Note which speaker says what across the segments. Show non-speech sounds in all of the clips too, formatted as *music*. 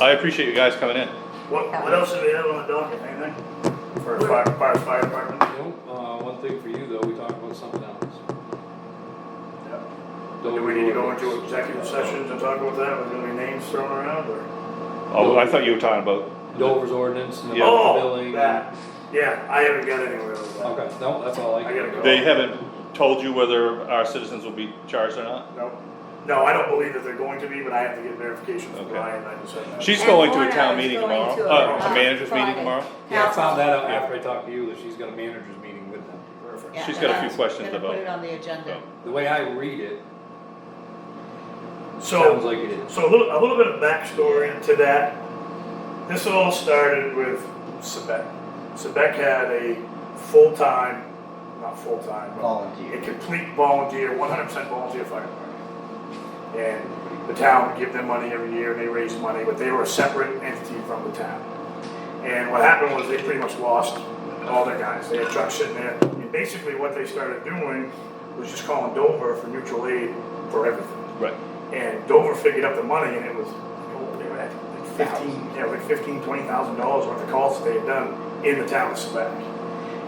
Speaker 1: I appreciate you guys coming in.
Speaker 2: What, what else do we have on the docket, anything? For the fire, fire, fire department?
Speaker 3: No, uh, one thing for you though, we talked about something else.
Speaker 2: Do we need to go into executive session to talk about that, with any names thrown around, or?
Speaker 1: Oh, I thought you were talking about,
Speaker 3: Dover's ordinance and the
Speaker 1: Yeah.
Speaker 2: Oh,
Speaker 3: billing.
Speaker 2: that, yeah, I haven't got anywhere with that.
Speaker 3: Okay, no, that's all I.
Speaker 2: I gotta go.
Speaker 1: they haven't told you whether our citizens will be charged or not?
Speaker 2: No, no, I don't believe that they're going to be, but I have to get verification from
Speaker 1: Okay.
Speaker 2: Ryan, I just said that.
Speaker 1: She's
Speaker 4: And
Speaker 1: going to a
Speaker 4: Lorna
Speaker 1: town
Speaker 4: is
Speaker 1: meeting
Speaker 4: going
Speaker 1: tomorrow,
Speaker 4: to
Speaker 1: uh,
Speaker 4: a,
Speaker 1: a manager's meeting
Speaker 4: Friday.
Speaker 1: tomorrow.
Speaker 3: Yeah, I found that out after I talked to you, that she's got a manager's meeting with them.
Speaker 2: Perfect.
Speaker 4: Yeah,
Speaker 1: She's got a few
Speaker 4: that's-
Speaker 1: questions
Speaker 4: gonna
Speaker 1: about-
Speaker 4: Put it on the agenda.
Speaker 1: So,
Speaker 3: The way I read it, sounds
Speaker 2: So,
Speaker 3: like it is.
Speaker 2: so a little, a little bit of backstory to that. This all started with Sebek. Sebek had a full-time, not full-time, but a
Speaker 5: volunteer.
Speaker 2: complete volunteer, one hundred percent volunteer fire department. And the town would give them money every year, and they raised money, but they were a separate entity from the town. And what happened was they pretty much lost all their guys, they had trucks sitting there, and basically what they started doing was just calling Dover for mutual aid for everything.
Speaker 1: Right.
Speaker 2: And Dover figured up the money and it was, oh, they were at like fifteen, yeah, like fifteen, twenty thousand dollars worth of calls that they had done in the town of Quebec.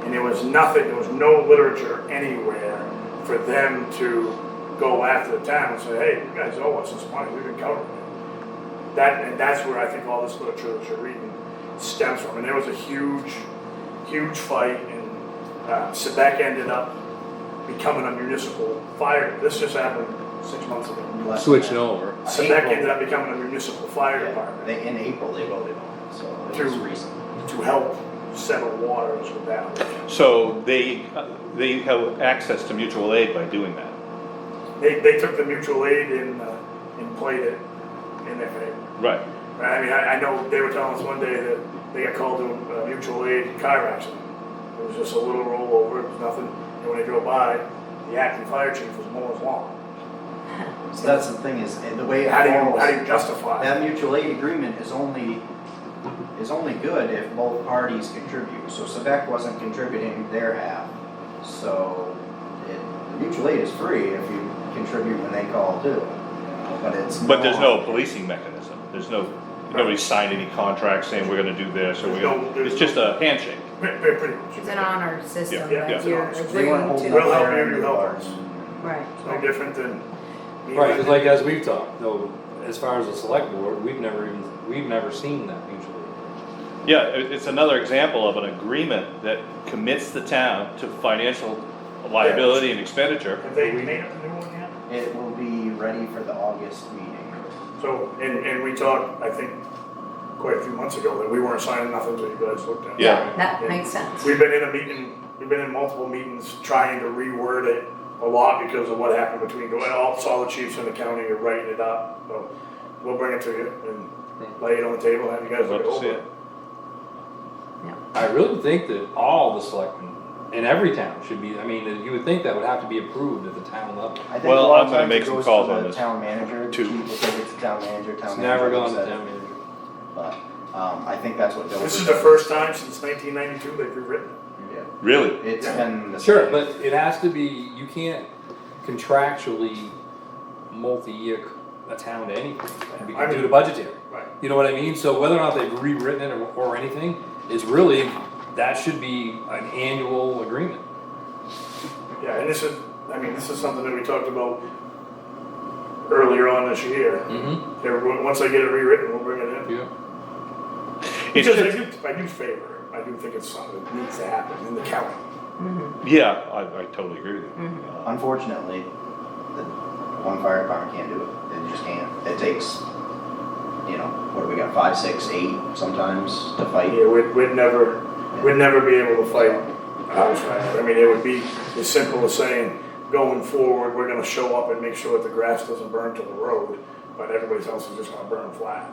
Speaker 2: And there was nothing, there was no literature anywhere for them to go after the town and say, hey, you guys owe us this money, we've been covering it. That, and that's where I think all this literature that you're reading stems from. And there was a huge, huge fight and, uh, Quebec ended up becoming a municipal fire, this just happened six months ago.
Speaker 5: Less
Speaker 3: Switching
Speaker 5: than
Speaker 3: over.
Speaker 5: that.
Speaker 2: So that ended up becoming a municipal fire
Speaker 5: Yeah,
Speaker 2: department
Speaker 5: They, in April, they voted on it, so it
Speaker 2: Two.
Speaker 5: was recent.
Speaker 2: to help settle waters with that.
Speaker 1: So they, they have access to mutual aid by doing that.
Speaker 2: They, they took the mutual aid and, uh, and played it in their favor.
Speaker 1: Right.
Speaker 2: I mean, I, I know they were telling us one day that they got called to a mutual aid car accident. It was just a little rollover, it was nothing, and when they drove by, the acting fire chief was mowing his lawn. *laughs*
Speaker 5: So that's the thing is, and the way it
Speaker 2: How do you, how do
Speaker 5: falls,
Speaker 2: you justify it?
Speaker 5: that mutual aid agreement is only, is only good if both parties contribute. So Sebec wasn't contributing their half, so it, the mutual aid is free if you contribute when they call too. you know, But it's.
Speaker 1: But there's no policing mechanism, there's no, nobody signed any contract saying we're gonna do this, or we're
Speaker 2: There's no-
Speaker 1: gonna,
Speaker 2: there's
Speaker 1: it's just a handshake.
Speaker 2: Pretty, pretty- pretty much.
Speaker 4: It's an honor system,
Speaker 1: Yeah, yeah,
Speaker 4: right?
Speaker 1: it's
Speaker 2: an
Speaker 4: You're
Speaker 2: honor system.
Speaker 5: They
Speaker 4: agreeing
Speaker 5: weren't holding
Speaker 4: to.
Speaker 2: We'll
Speaker 5: up
Speaker 2: help
Speaker 5: their
Speaker 2: you,
Speaker 5: end
Speaker 2: you
Speaker 5: of the
Speaker 2: help
Speaker 5: bargain.
Speaker 2: us.
Speaker 4: Right.
Speaker 2: It's no different than.
Speaker 3: Right, it's like as we've talked, though, as far as the select board, we've never even, we've never seen that mutually.
Speaker 1: Yeah, it, it's another example of an agreement that commits the town to financial liability and expenditure.
Speaker 2: Have they made up a new one yet?
Speaker 5: It will be ready for the August meeting.
Speaker 2: So, and, and we talked, I think, quite a few months ago, that we weren't signing nothing until you guys looked at it.
Speaker 1: Yeah.
Speaker 4: That makes sense.
Speaker 2: We've been in a meeting, we've been in multiple meetings trying to reword it a lot because of what happened between, and all, all the chiefs in the county are writing it up, so we'll bring it to you and lay it on the table, have you guys
Speaker 1: Love
Speaker 2: look it
Speaker 1: to see
Speaker 2: over.
Speaker 1: it.
Speaker 3: I really think that all the selectmen in every town should be, I mean, you would think that would have to be approved at the town level.
Speaker 5: I think
Speaker 1: Well,
Speaker 5: a lot of
Speaker 1: I'm gonna
Speaker 5: times
Speaker 1: make
Speaker 5: it
Speaker 1: some
Speaker 5: goes
Speaker 1: calls
Speaker 5: to
Speaker 1: on
Speaker 5: the
Speaker 1: this.
Speaker 5: Town manager,
Speaker 1: Two.
Speaker 5: people take it to town manager, town
Speaker 3: It's
Speaker 5: manager.
Speaker 3: never gone
Speaker 5: looks
Speaker 3: to
Speaker 5: at it.
Speaker 3: town meeting.
Speaker 5: But, um, I think that's what Dover.
Speaker 2: This is the
Speaker 5: does.
Speaker 2: first time since nineteen ninety-two they've rewritten it.
Speaker 5: Yeah,
Speaker 1: Really?
Speaker 5: it's been the.
Speaker 3: Sure,
Speaker 5: same.
Speaker 3: but it has to be, you can't contractually multi-year a town to anything,
Speaker 2: I mean-
Speaker 3: due to budgetary.
Speaker 2: Right.
Speaker 3: You know what I mean? So whether or not they've rewritten it or, or anything, is really, that should be an annual agreement.
Speaker 2: Yeah, and this is, I mean, this is something that we talked about earlier on this year.
Speaker 1: Mm.
Speaker 3: Mm-hmm.
Speaker 2: Everyone, once I get it rewritten, we'll bring it in.
Speaker 3: Yeah.
Speaker 1: It's
Speaker 2: Because I
Speaker 1: just,
Speaker 2: do, I do favor it. I do think it's something that needs to happen in the county.
Speaker 1: yeah, I, I totally agree with you. Uh,
Speaker 5: Unfortunately, the one fire department can't do it, it just can't, it takes, you know, what do we got, five, six, eight sometimes to fight.
Speaker 2: Yeah, we'd, we'd never, we'd never be able to fight a house fire. I mean, it would be as simple as saying, going forward, we're gonna show up and make sure that the grass doesn't burn to the road, but everybody's else is just gonna burn flat.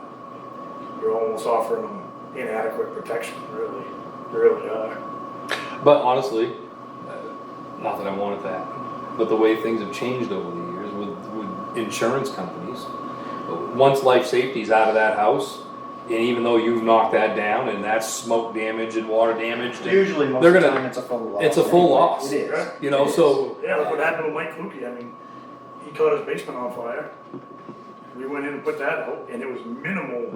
Speaker 2: You're almost offering them inadequate protection, really, you really are.
Speaker 3: But honestly, uh, not that I wanted that, but the way things have changed over the years with, with insurance companies, once life safety's out of that house, and even though you've knocked that down and that's smoke damage and water damage, and-
Speaker 5: Usually, most
Speaker 3: They're
Speaker 5: of the
Speaker 3: gonna-
Speaker 5: time, it's a full loss.
Speaker 3: it's a full
Speaker 5: anyway.
Speaker 3: loss.
Speaker 5: It is.
Speaker 3: you know,
Speaker 5: It is.
Speaker 3: so
Speaker 2: Yeah, look what happened to Mike Lukey, I mean, he caught his basement on fire. We went in and put that out, and it was minimal